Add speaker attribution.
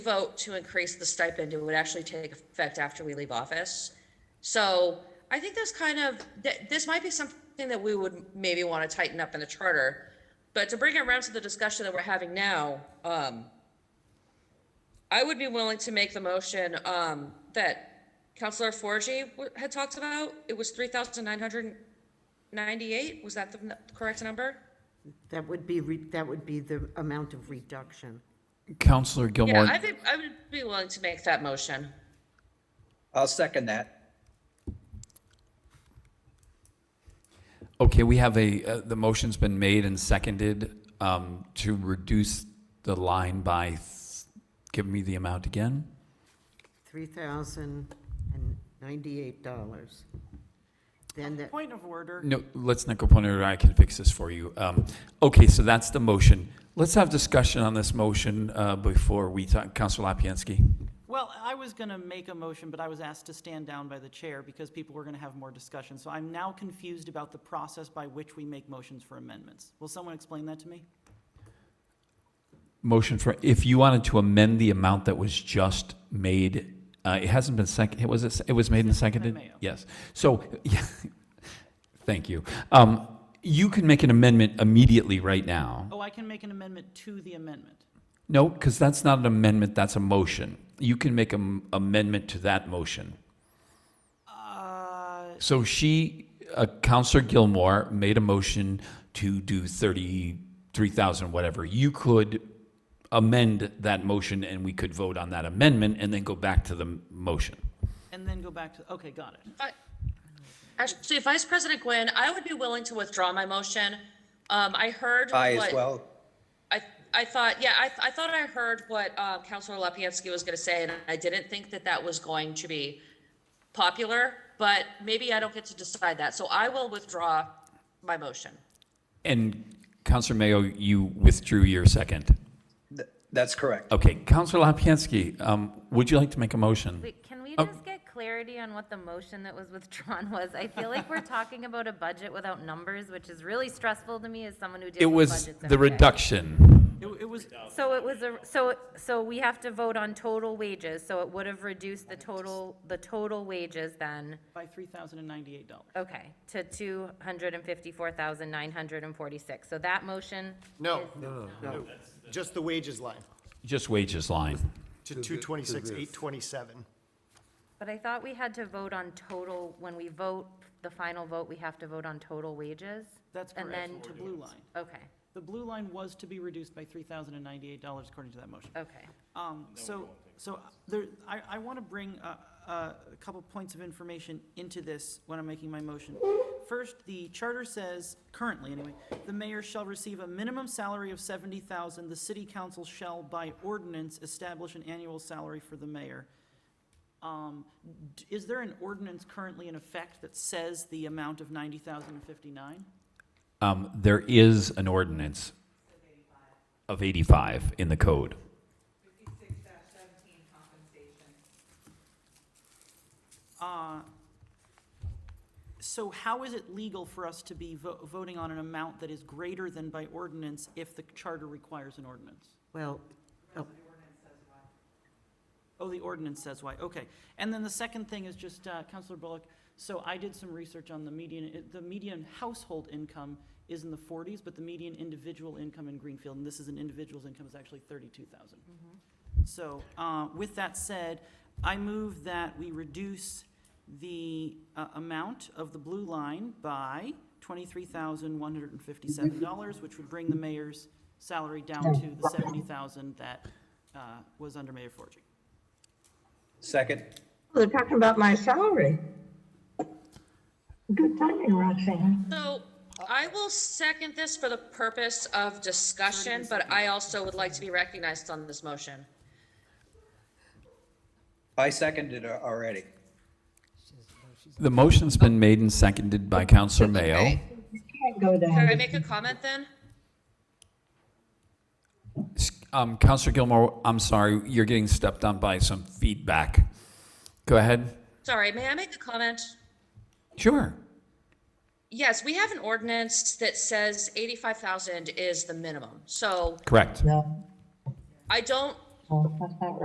Speaker 1: vote to increase the stipend, it would actually take effect after we leave office. So I think that's kind of, that, this might be something that we would maybe want to tighten up in the charter. But to bring it around to the discussion that we're having now, um, I would be willing to make the motion, um, that Counselor Forgy w- had talked about. It was three thousand nine hundred ninety-eight. Was that the n- correct number?
Speaker 2: That would be, re- that would be the amount of reduction.
Speaker 3: Counselor
Speaker 1: Yeah,
Speaker 3: Gilmore,
Speaker 1: I think, I would be willing to make that motion.
Speaker 4: I'll second that.
Speaker 3: okay, we have a, uh, the motion's been made and seconded um, to reduce the line by, th- give me the amount again?
Speaker 2: $3,098. Then that,
Speaker 5: Point of order.
Speaker 3: No, let's not go point it out, I can fix this for you. Um, Okay, so that's the motion. Let's have discussion on this motion uh, before we talk, Counselor Lapinski.
Speaker 5: Well, I was going to make a motion, but I was asked to stand down by the chair because people were going to have more discussion. So I'm now confused about the process by which we make motions for amendments. Will someone explain that to me?
Speaker 3: Motion for, if you wanted to amend the amount that was just made, uh, it hasn't been seconded, was it, it was made and seconded?
Speaker 5: Mayo.
Speaker 3: Yes. So, yeah, thank you. Um, You can make an amendment immediately right now.
Speaker 5: Oh, I can make an amendment to the amendment.
Speaker 3: No, because that's not an amendment, that's a motion. You can make an amendment to that motion.
Speaker 5: Uh,
Speaker 3: So she, uh, Counselor Gilmore, made a motion to do 33,000, whatever. You could amend that motion, and we could vote on that amendment, and then go back to the m- motion.
Speaker 5: And then go back to, okay, got it.
Speaker 1: I- Actually, Vice President Gwynn, I would be willing to withdraw my motion. Um, I heard.
Speaker 4: I as
Speaker 1: what-
Speaker 4: well.
Speaker 1: I, I thought, yeah, I, I thought I heard what, uh, Counselor Lapinski was gonna say, and I didn't think that that was going to be popular, but maybe I don't get to decide that, so I will withdraw my motion.
Speaker 3: And Counselor Mayo, you withdrew your second.
Speaker 4: Th- That's correct.
Speaker 3: Okay, Counselor Lapinski, um, would you like to make a motion?
Speaker 6: Wait, can we
Speaker 3: Oh.
Speaker 6: just get clarity on what the motion that was withdrawn was? I feel like we're talking about a budget without numbers, which is really stressful to me as someone who
Speaker 3: It
Speaker 6: deals with budgets
Speaker 3: was
Speaker 6: every day.
Speaker 3: the reduction.
Speaker 5: It it was,
Speaker 6: So it was a, so, so we have to vote on total wages, so it would have reduced the total, the total wages then,
Speaker 5: by $3,098.
Speaker 6: okay, to two hundred and fifty-four thousand nine hundred and forty-six. So that motion,
Speaker 7: No, no, no. Just the wages line,
Speaker 3: Just wages line.
Speaker 7: to two twenty-six, eight twenty-seven.
Speaker 6: but I thought we had to vote on total, when we vote, the final vote, we have to vote on total wages?
Speaker 5: That's
Speaker 6: And
Speaker 5: correct, to
Speaker 6: then-
Speaker 5: blue line.
Speaker 6: Okay,
Speaker 5: The blue line was to be reduced by $3,098 according to that motion.
Speaker 6: okay.
Speaker 5: Um, So, so there, I, I want to bring uh, uh, a couple points of information into this when I'm making my motion. First, the charter says, currently anyway, the mayor shall receive a minimum salary of 70,000. The city council shall by ordinance establish an annual salary for the mayor. Um, d- Is there an ordinance currently in effect that says the amount of 90,059?
Speaker 3: Um, there is an ordinance of 85 in the code.
Speaker 5: So how is it legal for us to be vo- voting on an amount that is greater than by ordinance if the charter requires an ordinance?
Speaker 2: well, oh,
Speaker 5: Oh, the ordinance says why, okay. And then the second thing is just, uh, Counselor Bullock, so I did some research on the median, it- the median household income is in the forties, but the median individual income in Greenfield, and this is an individual's income, is actually thirty-two thousand. So, uh, with that said, I move that we reduce the, uh, amount of the blue line by twenty-three thousand, one hundred and fifty-seven dollars, which would bring the mayor's salary down to the seventy thousand that, uh, was under Mayor Forgy.
Speaker 4: Second.
Speaker 8: They're talking about my salary. Good timing, Roxanne.
Speaker 1: So I will second this for the purpose of discussion, but I also would like to be recognized on this motion.
Speaker 4: I seconded it already.
Speaker 3: The motion's been made and seconded by Counselor Mayo.
Speaker 8: Can't go
Speaker 1: Can I
Speaker 8: down.
Speaker 1: make a comment then?
Speaker 3: S- Um, Counselor Gilmore, I'm sorry, you're getting stepped on by some feedback. Go ahead.
Speaker 1: Sorry, may I make a comment?
Speaker 3: Sure.
Speaker 1: Yes, we have an ordinance that says eighty-five thousand is the minimum. So
Speaker 3: Correct.
Speaker 8: No, Oh,
Speaker 1: I don't
Speaker 8: that's not right.